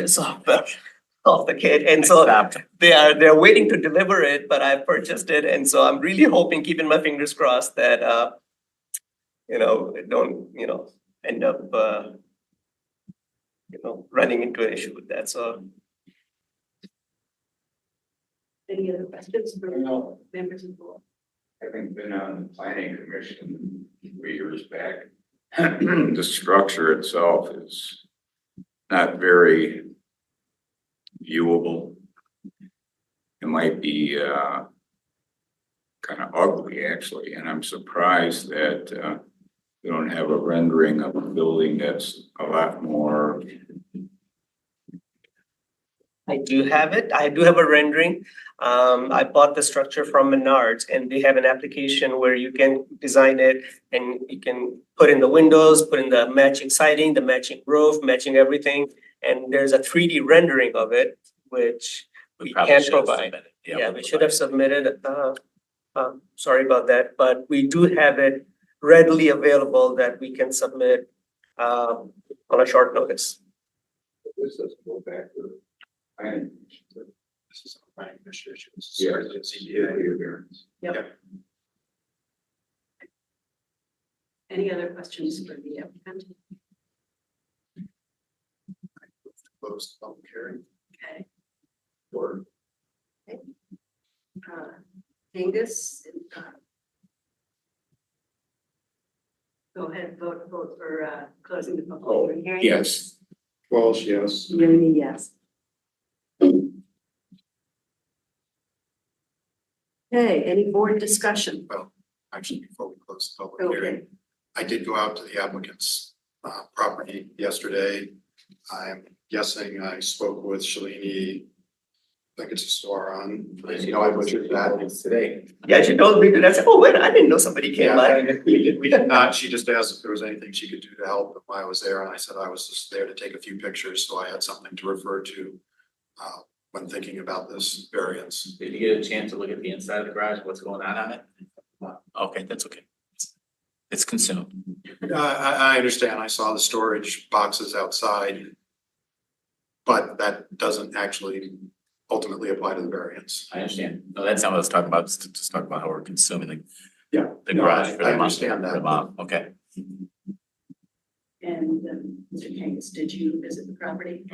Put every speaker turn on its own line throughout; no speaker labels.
this off the, off the kid. And so
Stop.
they are, they're waiting to deliver it, but I purchased it. And so I'm really hoping, keeping my fingers crossed that, uh, you know, it don't, you know, end up, uh, you know, running into an issue with that. So
Any other questions
I
for
know,
members of the board?
having been on the planning commission three years back, the structure itself is not very viewable. It might be, uh, kind of ugly actually, and I'm surprised that, uh, we don't have a rendering of a building that's a lot more,
I do have it. I do have a rendering. Um, I bought the structure from Menards and they have an application where you can design it and you can put in the windows, put in the matching siding, the matching roof, matching everything. And there's a three D rendering of it, which we
probably
can
should have
provide.
submitted.
Yeah,
we'll
we should
provide
have
it.
submitted, uh, um, sorry about that, but we do have it readily available that we can submit um, on a short notice.
this doesn't go back to the planning. commission.
This is a planning commission issue. This is
Yeah,
certainly a
it's
CDA.
CDA variance.
Any other questions for the applicant?
Close the public hearing
Okay.
or
uh, Angus? uh, Go ahead, vote, vote for uh, closing the public hearing.
Oh, Yes. Walsh, yes.
Rooney, yes. Okay, any board discussion?
actually before we close the public
Okay,
hearing. I did go out to the applicant's uh property yesterday. I'm guessing I spoke with Shalini. I think it's a store on, you know, I butchered that.
Today.
Yeah, she told me to, I said, oh, wait, I didn't know somebody came by.
Yeah, We did, we did not. She just asked if there was anything she could do to help if I was there and I said I was just there to take a few pictures, so I had something to refer to. Uh, when thinking about this variance.
Did you get a chance to look at the inside of the garage, what's going on on it? Okay, that's okay. It's consumed.
I, Uh, I, I understand. I saw the storage boxes outside. But that doesn't actually ultimately apply to the variance.
I understand. No, that's not what I was talking about. Just, just talking about how we're consuming the,
Yeah.
the garage for
I
the mom, for
understand
the
that.
mom. Okay.
and um, Mr. Angus, did you visit the property?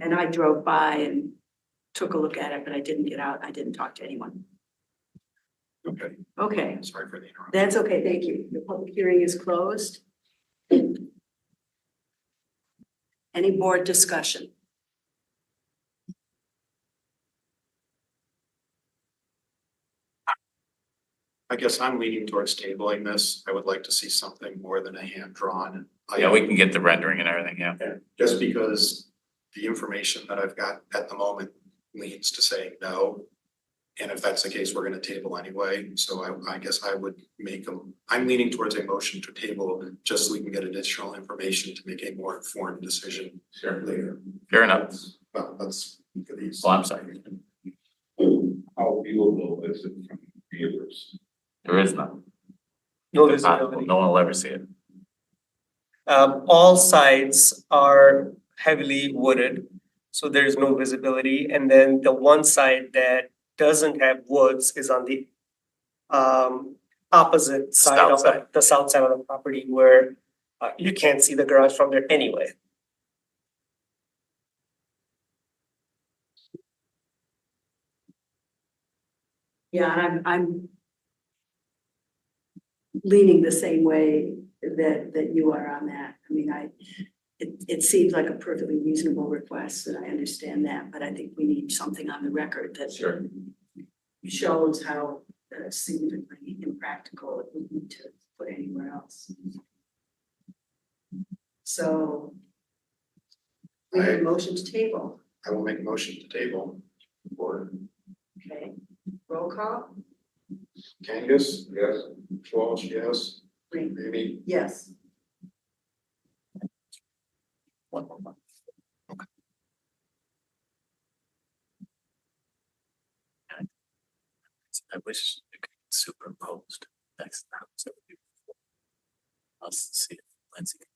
And I drove by and took a look at it, but I didn't get out. I didn't talk to anyone.
Okay,
Okay,
sorry for the interruption.
that's okay, thank you. The public hearing is closed. Any board discussion?
I guess I'm leaning towards tabling this. I would like to see something more than a hand-drawn.
Yeah, we
item,
can get the rendering and everything, yeah.
Just because the information that I've got at the moment leans to saying no. And if that's the case, we're gonna table anyway. So I, I guess I would make a, I'm leaning towards a motion to table just so we can get additional information to make a more informed decision
Sure.
later.
Fair enough.
Well, that's look at these.
Well, I'm sorry.
How viewable is it from viewers?
There is none.
No
Impossible.
visibility.
No one will ever see it.
Um, all sides are heavily wooded, so there is no visibility. And then the one side that doesn't have woods is on the um, opposite side
South
of the, the south side of the property where uh, you can't see the garage from there anyway.
Yeah, and I'm, I'm leaning the same way that, that you are on that. I mean, I, it, it seems like a perfectly reasonable request, and I understand that, but I think we need something on the record that
Sure.
shows how uh, significantly impractical it would be to put anywhere else. So we have a motion to table,
I will make a motion to table. Or
okay? Roll call?
Kangas? Yes. Walsh, yes.
Green.
Maybe.
Yes.
One more month. Okay. I wish it could be superimposed next time. so it'd be- I'll see if Lindsay can